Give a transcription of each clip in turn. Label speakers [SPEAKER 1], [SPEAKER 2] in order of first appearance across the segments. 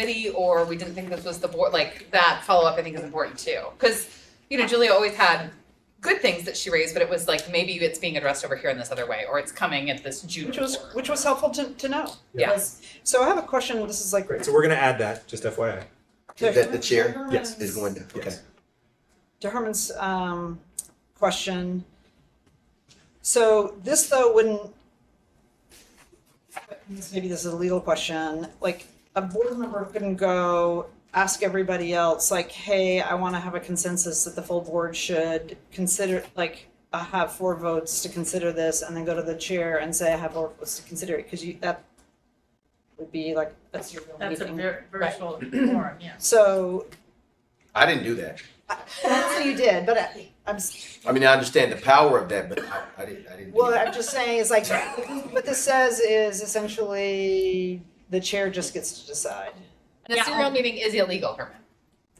[SPEAKER 1] committee or we didn't think this was the board, like that follow-up I think is important too. Cause, you know, Julia always had good things that she raised, but it was like, maybe it's being addressed over here in this other way, or it's coming at this June
[SPEAKER 2] Which was,
[SPEAKER 1] report.
[SPEAKER 2] which was helpful to, to know.
[SPEAKER 1] Yeah.
[SPEAKER 2] Because- So I have a question, this is like.
[SPEAKER 3] Great, so we're gonna add that, just FYI.
[SPEAKER 4] Is that the chair
[SPEAKER 3] Yes.
[SPEAKER 4] is going to, okay.
[SPEAKER 3] Yes.
[SPEAKER 2] to Herman's um question. So this though wouldn't maybe this is a legal question, like a board member couldn't go ask everybody else like, hey, I wanna have a consensus that the full board should consider, like, I have four votes to consider this and then go to the chair and say I have four votes to consider it, cause you, that would be like, that's your real meeting.
[SPEAKER 5] That's a vir- virtual forum, yeah.
[SPEAKER 2] So,
[SPEAKER 4] I didn't do that.
[SPEAKER 2] that's what you did, but I- I'm, s-
[SPEAKER 4] I mean, I understand the power of that, but I, I didn't, I didn't do
[SPEAKER 2] Well,
[SPEAKER 4] that.
[SPEAKER 2] I'm just saying, it's like, what this says is essentially the chair just gets to decide.
[SPEAKER 1] And a
[SPEAKER 5] Yeah.
[SPEAKER 1] serial meeting is illegal, Herman.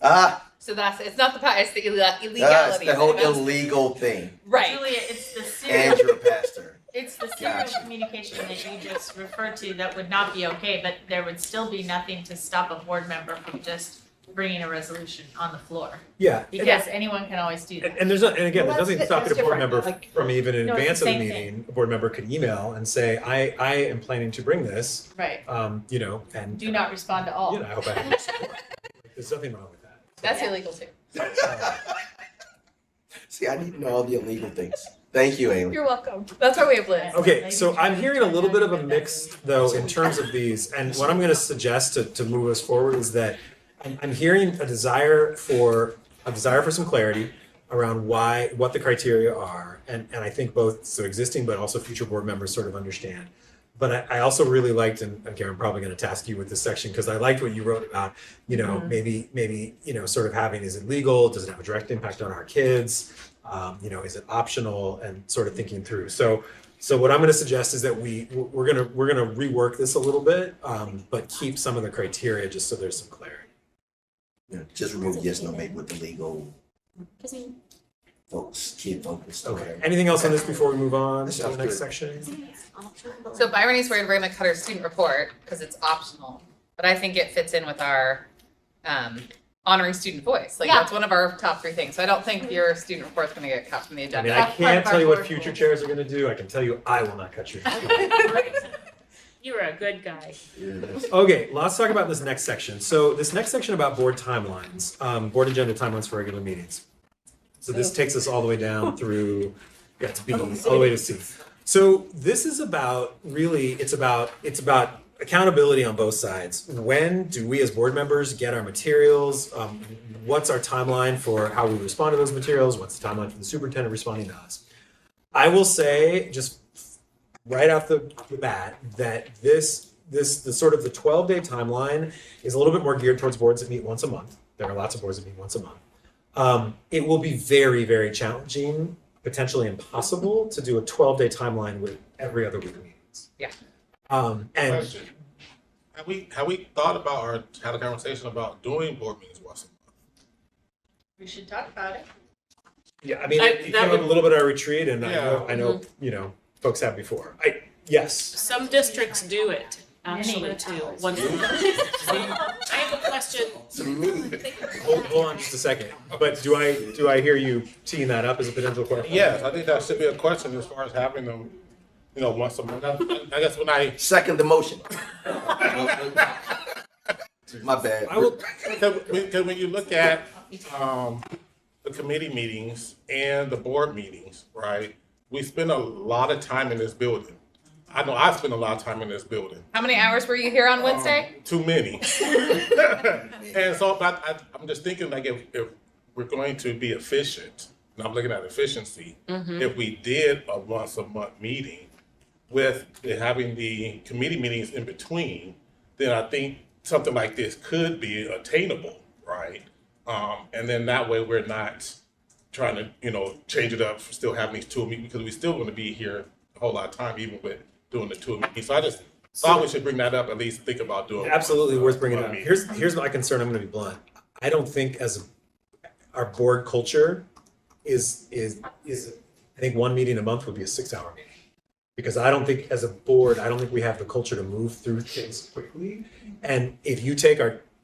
[SPEAKER 4] Ah,
[SPEAKER 1] So that's, it's not the, pa- it's the ille-
[SPEAKER 4] that's
[SPEAKER 1] illegality.
[SPEAKER 4] the whole
[SPEAKER 1] That's-
[SPEAKER 4] illegal thing.
[SPEAKER 1] Right.
[SPEAKER 5] Julia, it's the serial,
[SPEAKER 4] And you're a pastor.
[SPEAKER 5] it's the serial
[SPEAKER 4] Gotcha.
[SPEAKER 5] communication that you just referred to that would not be okay, but there would still be nothing to stop a board member from just bringing a resolution on the floor.
[SPEAKER 3] Yeah,
[SPEAKER 5] Because anyone can always do
[SPEAKER 3] and,
[SPEAKER 5] that.
[SPEAKER 3] and there's not, and again,
[SPEAKER 2] Well,
[SPEAKER 3] there's nothing
[SPEAKER 2] that's-
[SPEAKER 3] stopping
[SPEAKER 2] that's
[SPEAKER 3] a board
[SPEAKER 2] different,
[SPEAKER 3] member
[SPEAKER 2] like-
[SPEAKER 3] from even in
[SPEAKER 5] No, it's the
[SPEAKER 3] advance of the
[SPEAKER 5] same thing.
[SPEAKER 3] meeting, a board member could email and say, I, I am planning to bring this,
[SPEAKER 5] Right.
[SPEAKER 3] um, you know, and.
[SPEAKER 5] Do not respond to all.
[SPEAKER 3] You know, I hope I have your support. Like, There's nothing wrong with that.
[SPEAKER 1] That's illegal too.
[SPEAKER 4] See, I need to know all the illegal things. Thank you, Amy.
[SPEAKER 1] You're welcome. That's our way of living.
[SPEAKER 3] Okay, so I'm hearing a little bit of a mix though in terms of these, and what I'm gonna suggest to, to move us forward is that I'm, I'm hearing a desire for, a desire for some clarity around why, what the criteria are, and, and I think both, so existing but also future board members sort of understand. But I, I also really liked, and again, I'm probably gonna task you with this section, because I liked what you wrote about, you
[SPEAKER 5] Mm-hmm.
[SPEAKER 3] know, maybe, maybe, you know, sort of having, is it legal, does it have a direct impact on our kids? Um, you know, is it optional, and sort of thinking through, so, so what I'm gonna suggest is that we, we're gonna, we're gonna rework this a little bit, um, but keep some of the criteria just so there's some clarity.
[SPEAKER 4] Yeah, Just remove yes, no, maybe with the legal
[SPEAKER 6] Because we
[SPEAKER 4] folks, kid focused, or
[SPEAKER 3] Okay,
[SPEAKER 4] whatever.
[SPEAKER 3] anything else on this before we move on
[SPEAKER 4] That
[SPEAKER 3] to the
[SPEAKER 4] sounds
[SPEAKER 3] next
[SPEAKER 4] good.
[SPEAKER 3] section?
[SPEAKER 6] it's optional, but
[SPEAKER 1] So
[SPEAKER 6] like-
[SPEAKER 1] by Irony's word, we're gonna cut our student report because it's optional, but I think it fits in with our um honoring student voice. Like
[SPEAKER 5] Yeah.
[SPEAKER 1] that's one of our top three things. So I don't think your student report's gonna get cut from the
[SPEAKER 3] I
[SPEAKER 1] agenda.
[SPEAKER 3] mean, I
[SPEAKER 5] That's part
[SPEAKER 3] can't
[SPEAKER 5] of our
[SPEAKER 3] tell you what
[SPEAKER 5] board
[SPEAKER 3] future
[SPEAKER 5] goals.
[SPEAKER 3] chairs are gonna do, I can tell you I will not cut your.
[SPEAKER 5] You were a good guy.
[SPEAKER 4] Yeah, that's-
[SPEAKER 3] Okay, let's talk about this next section. So this next section about board timelines, um, board agenda timelines for regular meetings. So this takes us all the way down through, yeah, to B, all the way to C. So this is about, really, it's about, it's about accountability on both sides. When do we as board members get our materials? Um, what's our timeline for how we respond to those materials? What's the timeline for the superintendent responding to us? I will say, just right off the the bat, that this this the sort of the twelve day timeline is a little bit more geared towards boards that meet once a month. There are lots of boards that meet once a month. Um, it will be very very challenging, potentially impossible, to do a twelve day timeline with every other week meetings.
[SPEAKER 1] Yeah.
[SPEAKER 3] Um, and
[SPEAKER 7] Question. Have we, have we thought about or had a conversation about doing board meetings once a
[SPEAKER 5] We should talk about it.
[SPEAKER 3] Yeah, I mean,
[SPEAKER 8] I-
[SPEAKER 3] it it
[SPEAKER 8] that
[SPEAKER 3] came up
[SPEAKER 8] would- Mm-hmm.
[SPEAKER 3] a little bit at our retreat, and I
[SPEAKER 7] Yeah.
[SPEAKER 3] know, I know, you know, folks have before. I yes,
[SPEAKER 8] Some districts do it, actually,
[SPEAKER 5] Many.
[SPEAKER 8] too. Once I have a question.
[SPEAKER 4] So me.
[SPEAKER 3] hold, hold on just a second. But do I do I hear you teeing that up as a potential
[SPEAKER 7] month?
[SPEAKER 3] question?
[SPEAKER 7] Yes, I think that should be a question as far as having them, you know, once a month. I I guess when I,
[SPEAKER 4] Second the motion. My bad.
[SPEAKER 3] I will.
[SPEAKER 7] because because when you look at, um, the committee meetings and the board meetings, right? We spend a lot of time in this building. I know I spend a lot of time in this building.
[SPEAKER 1] How many hours were you here on Wednesday?
[SPEAKER 7] Too many. and so but I, I'm just thinking like if, if we're going to be efficient, and I'm looking at efficiency, if we did a once a month meeting with the- having the committee meetings in between, then I think something like this could be attainable, right? Um, and then that way we're not trying to, you know, change it up for still having these two meetings because we still want to be here a whole lot of time even with doing the two meetings. So I just thought we should bring that up, at least think about doing. one,
[SPEAKER 3] absolutely
[SPEAKER 7] uh,
[SPEAKER 3] worth bringing
[SPEAKER 7] one
[SPEAKER 3] up.
[SPEAKER 7] meeting.
[SPEAKER 3] Here's here's my concern. I'm going to be blunt. I don't think as a, our board culture is is is I think one meeting a month would be a six hour meeting because I don't think as a board I don't think we have the culture to move through things quickly. And if you take our